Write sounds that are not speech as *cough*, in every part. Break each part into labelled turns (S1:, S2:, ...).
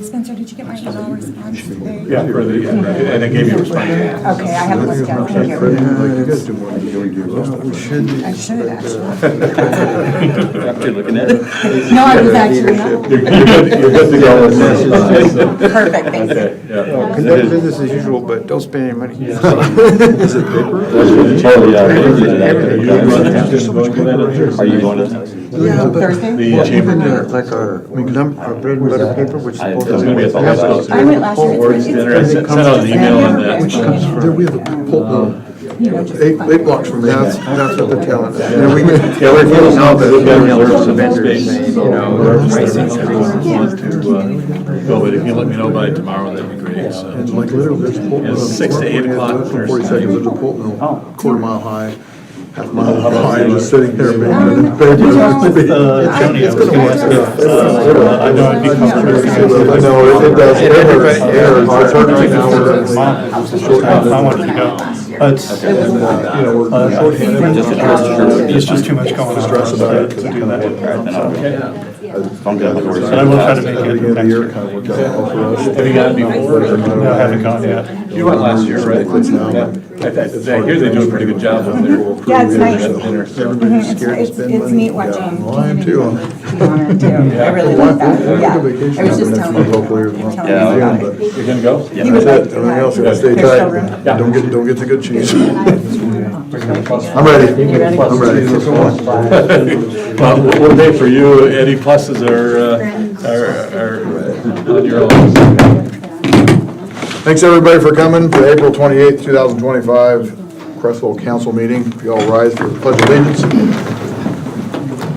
S1: Spencer, did you get my email response today?
S2: Yeah, for the, and it gave you a response.
S1: Okay, I haven't looked at it
S3: Fred,
S1: here.
S3: like you guys do more than you do yourself.
S4: We shouldn't.
S1: I should *laughs* actually.
S5: After looking at it.
S1: No, I was actually not.
S2: You're you're good, you're good to go with that.
S1: *laughs* Perfect, thank you.
S2: Okay, yeah.
S4: Conduct business as usual, but don't spend any money. *laughs*
S5: Totally, uh, looked at
S2: Are you going to-
S5: it.
S2: just going to that?
S5: Are you going to?
S4: Yeah, but-
S1: Thursday?
S2: The
S4: Well,
S2: chamber,
S4: even uh, like our, we lump our bread and butter paper, which is
S5: I-
S4: both.
S5: it's gonna be a
S4: We have
S5: thousand
S4: those-
S1: I
S5: dollars.
S1: went last year. It's-
S2: Boards
S1: it's-
S2: dinner, I sent sent out an email on that.
S4: Which comes from, we have a pulp mill,
S1: You know, just-
S4: eight, eight blocks from there. That's, that's what they're telling us. And we get-
S2: Yeah, we're feeling now that we've got reserves of
S3: vendors
S2: space,
S3: and,
S2: so
S3: you know,
S2: we're
S3: their
S2: reserving
S3: prices.
S2: everyone who wants to, uh, Go, but if you let me know by tomorrow, that'd be great, so.
S4: And like literally, there's a uh, pulp mill.
S2: It's six to eight o'clock
S4: From
S2: or
S4: forty
S2: something.
S4: seconds, there's a pulp
S1: Oh.
S4: mill, quarter mile high, half a mile high, just sitting there.
S1: Um,
S4: making paper. It's gonna
S1: Uh,
S4: work.
S2: I know I'd be comfortable.
S3: I know, it does, it hurts, it hurts. It's hurting right now. It's a short-
S6: I wanted to go. It's,
S4: And, uh, You know, we're shorthanded.
S5: Just address your-
S6: it's just too much going on.
S4: Stress about it.
S6: To do that.
S5: Alright, then I'll- if I'm good with the words.
S6: But I will try to make
S4: Beginning of
S6: it
S4: the
S6: next
S4: year,
S6: year.
S4: kind of worked out well for us.
S2: Have you gotten before?
S6: No, I haven't gone yet.
S2: You went last year, right? Yeah. I th- I hear they do a pretty good job up there.
S1: Yeah, it's nice.
S2: Dinner, so.
S1: Mhm, It's, it's, it's neat watching.
S4: Well, I am too.
S1: community on it, too. I really like that, yeah. I was just telling him, telling him
S5: Yeah.
S1: about it.
S2: You're gonna go? Yeah.
S1: He would like
S4: That's
S1: to
S4: it, everything else,
S1: have-
S4: gotta stay
S1: there's still
S4: tight.
S1: room.
S4: Don't get, don't get the good cheese. I'm ready, I'm ready.
S2: Well, what- what day for you, Eddie, pluses are, uh, are, are on your own.
S4: Thanks, everybody, for coming for April twenty-eighth, two thousand twenty-five, Crestwell Council meeting. If you all rise for the pledge of allegiance.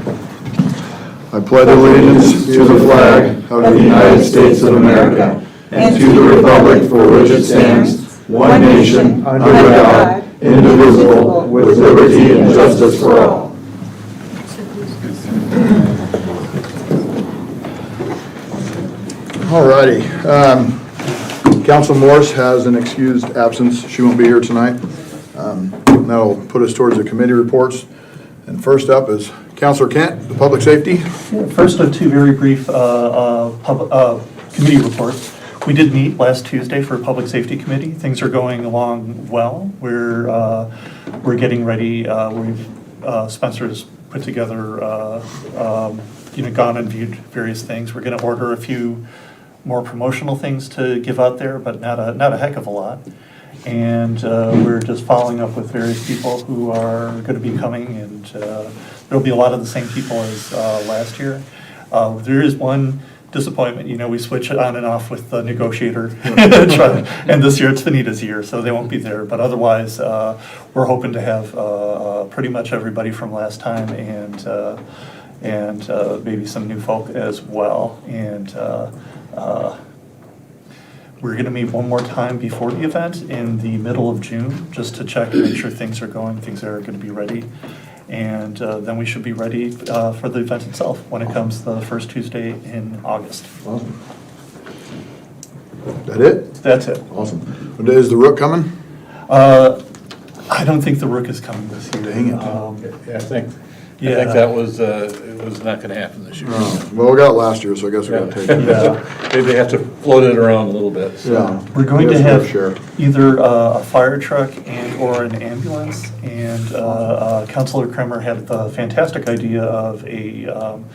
S4: I pledge allegiance to the flag of the United States of America
S1: And to the republic for which it stands, one nation, under God, indivisible, with liberty and justice for all.
S4: Alrighty. Um, Council Morris has an excused absence. She won't be here tonight. Um, That'll put us towards the committee reports. And first up is Counselor Kent, the Public Safety.
S6: First of two very brief uh, uh, pub- uh, committee reports. We did meet last Tuesday for Public Safety Committee. Things are going along well. We're, uh, we're getting ready. Uh, We've, uh, Spencer's put together, uh, um, you know, gone and viewed various things. We're going to order a few more promotional things to give out there, but not a, not a heck of a lot. And uh, we're just following up with various people who are going to be coming, and uh, there'll be a lot of the same people as uh, last year. Uh, There is one disappointment, you know, we switch on and off with the negotiator. *laughs* And this year, it's Benita's year, so they won't be there. But otherwise, uh, we're hoping to have uh, uh, pretty much everybody from last time, and uh, and uh, maybe some new folk as well. And uh, uh, we're going to meet one more time before the event in the middle of June, just to check, make sure things are going, things are going to be ready. And uh, then we should be ready uh, for the event itself when it comes the first Tuesday in August.
S4: That it?
S6: That's it.
S4: Awesome. What day is the Rook coming?
S6: Uh, I don't think the Rook is coming this year.
S4: Dang it.
S6: Um,
S2: Yeah, I think, I
S6: Yeah.
S2: think that was, uh, it was not gonna happen this year.
S4: Oh, Well, we got last year, so I guess we gotta take *laughs*
S2: *laughs*
S4: it.
S6: Yeah.
S2: They, they have to float it around a little bit, so.
S4: Yeah.
S6: We're going
S4: Yes,
S6: to
S4: we'll
S6: have
S4: Share.
S6: either uh, a fire truck and/or an ambulance. And uh, uh, Councilor Kremer had the fantastic idea of a, um,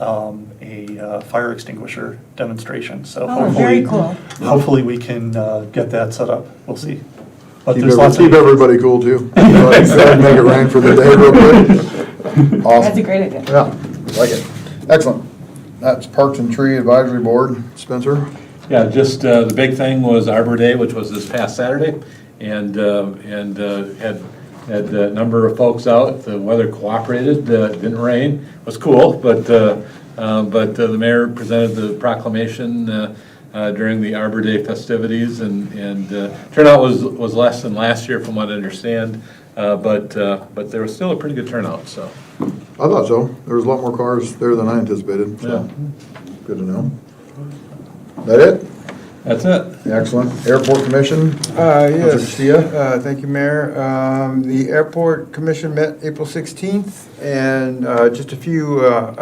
S6: um, a uh, fire extinguisher demonstration. So
S1: Oh,
S6: hopefully.
S1: very cool.
S6: Hopefully, we can uh, get that set up. We'll see. But
S4: Keep
S6: there's lots
S4: every-
S6: of.
S4: keep everybody cool,
S6: *laughs*
S4: too. Go ahead and Make it rain for the day real quick. Awesome.
S1: That's a great idea.
S4: Yeah, like it. Excellent. That's Parks and Tree Advisory Board. Spencer?
S2: Yeah, just, uh, the big thing was Arbor Day, which was this past Saturday, and, uh, and uh, had, had a number of folks out, the weather cooperated, uh, didn't rain, was cool, but, uh, uh, but uh, the mayor presented the proclamation uh, uh, during the Arbor Day festivities, and, and uh, turnout was, was less than last year from what I understand, uh, but, uh, but there was still a pretty good turnout, so.
S4: I thought so. There was a lot more cars there than I anticipated,
S2: Yeah,
S4: so good to know. That it?
S2: that's it.
S4: Excellent. Airport Commission?
S3: Uh,
S4: Councilor
S3: yes,
S4: Castillo?
S3: uh, thank you, Mayor. Um, the Airport Commission met April sixteenth, and, uh, just a few, uh,